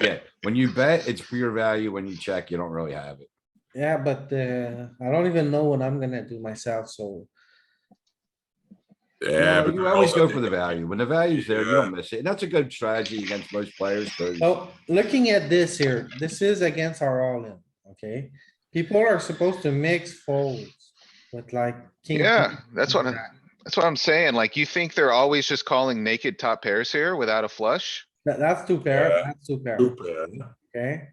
Yeah, when you bet, it's for your value. When you check, you don't really have it. Yeah, but uh, I don't even know what I'm gonna do myself, so Yeah, No, but You they're always all- go for the value. When the value's there, you don't miss it. And that's a good strategy against most players, because Oh, looking at this here, this is against our all-in, okay? People are supposed to mix folds with like. king, Yeah, queen, that's what, I- jack. that's what I'm saying. Like, you think they're always just calling naked top pairs here without a flush? That- that's two pair, Yeah. that's two pair, Two pair, yeah. okay?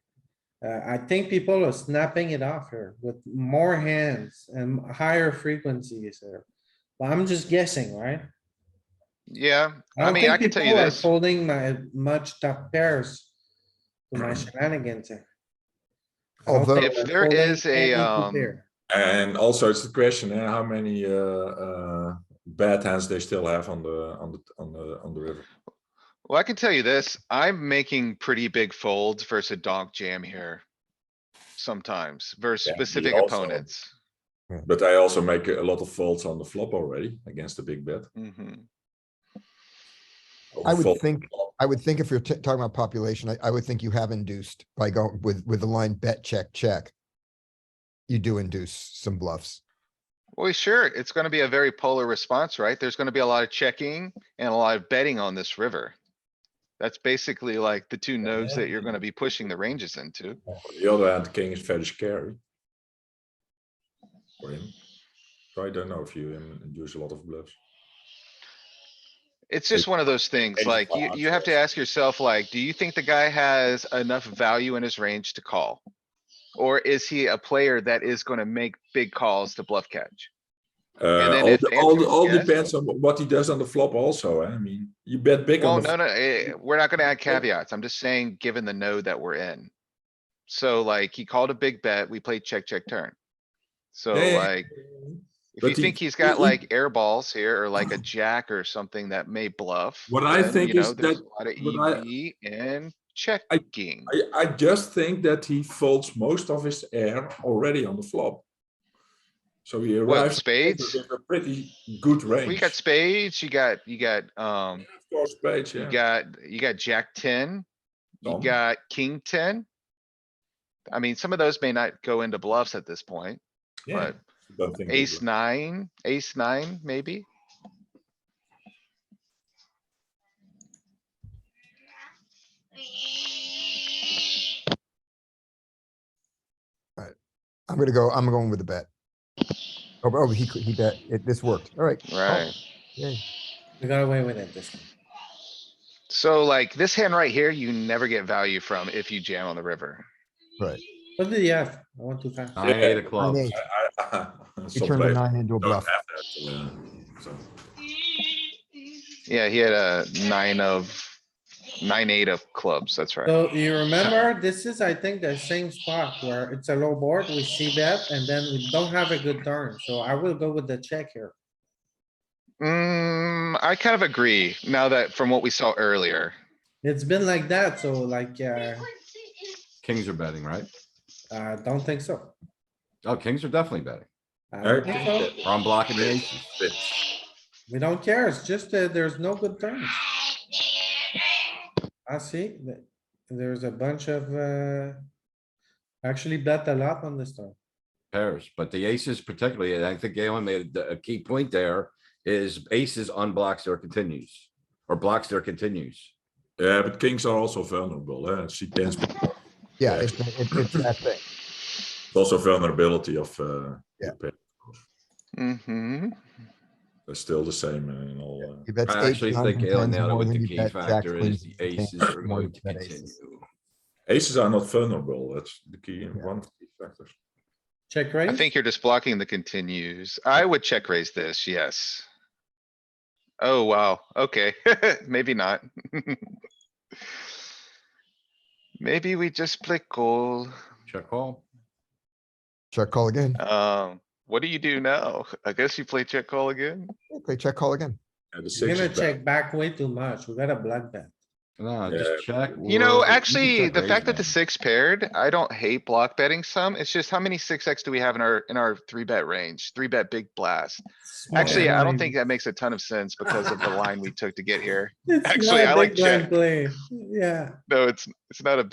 Uh, I think people are snapping it off here with more hands and higher frequencies here. But I'm just guessing, right? Yeah, I don't mean, think I can tell you people are this. Folding my much top pairs to my shenanigans here. I don't Although- think If they're Hmm. there folding is a, any two um, pair. And also it's the question, eh, how many uh, uh, bad hands they still have on the, on the, on the, on the river. Well, I can tell you this, I'm making pretty big folds versus a donk jam here. Sometimes versus Yeah, me specific also. opponents. But I also make a lot of faults on the flop already against the big bet. Mhm. I would Fault. think, I would think if you're t- talking about population, I, I would think you have induced by going with, with the line bet, check, check. You do induce some bluffs. Well, sure, it's gonna be a very polar response, right? There's gonna be a lot of checking and a lot of betting on this river. That's basically like the two nodes that you're gonna be pushing the ranges into. On the other hand, the king is very scary. For him. So I don't know if you um, use a lot of bluffs. It's just one of those things, it's like, you, hard you to have to ask yourself, like, do you think the guy has enough value in his range to call? Or is he a player that is gonna make big calls to bluff catch? Uh, then all if the- the all, answer the- is all yes- depends on what he does on the flop also, eh? I mean, you bet big Well, on the. no, flop. no, eh, we're not gonna add caveats. I'm just saying, given the node that we're in. So like, he called a big bet, we played check, check, turn. So Yeah, yeah, like, if But you he- think he's he- got he- like air balls here, or like a jack or something that may bluff. What I then, think you is know, there's that- a lot of what I- EV and checking. I, I just think that he folds most of his air already on the flop. So he What, arrives. spades? With a pretty good range. We got spades, you got, you got, um, Of course, spades, you yeah. got, you got jack ten, you Tom. got king ten. I mean, some of those may not go into bluffs at this point, Yeah, but don't think they ace do. nine, ace nine, maybe. I'm gonna go, I'm going with the bet. Oh, oh, he, could- he bet, it, this worked, all Oh. right. Right. Yeah, We got away with it this time. So like this hand right here, you never get value from if you jam on the river. right. What did he have? I want to find. nine, eight of Nine, clubs. eight. He Some turned a players nine into a don't have bluff. that, uh, so. Yeah, he had a nine of, nine, eight of clubs, that's Uh. right. So you remember, this is, I think, the same spot where it's a low board, we see that, and then we don't have a good turn, so I will go with the check here. Mm, I kind of agree now that from what we saw earlier. It's been like that, so like, uh, Kings are betting, right? I don't think so. Oh, kings are definitely betting. I I don't think so. think Or I'm blocking the aces. We don't care, it's just that there's no good turns. I see, that there's a bunch of, uh, actually bet a lot on this turn. Pairs, but the aces particularly, and I think Galen made a a key point there, is aces unblocks their continues. Or blocks their continues. Yeah, but kings are also vulnerable, eh? She tends, Yeah, it's, that- it's it's that thing. it's also vulnerability of, uh, Yeah. the pair. Mm-hmm. They're still the same in all. uh, He bets I eight, actually nines, think and Galen tens nailed it more with than the you key bet jack, factor queens, is the and tens aces are more going to than you bet aces. continue. Aces are not vulnerable, that's the key, one of the key factors. Check raise? I think you're just blocking the continues. I would check raise this, yes. Oh, wow, okay, maybe not. Maybe we just play call. Check call. Check call again, Uh, Um, what do you do now? I guess you play check call again? okay, check call again. Yeah, the We're six gonna is bad. check back way too much, we gotta block bet. No, Yeah. just check. You know, or- can actually, check the raise fact that the now. six paired, I don't hate block betting some. It's just how many six X do we have in our, in our three bet range? Three bet big blast. Actually, I don't think that makes a ton of sense because of the line we took to get here. It's actually, not a I like big blind check. play. Yeah. No, it's, it's not a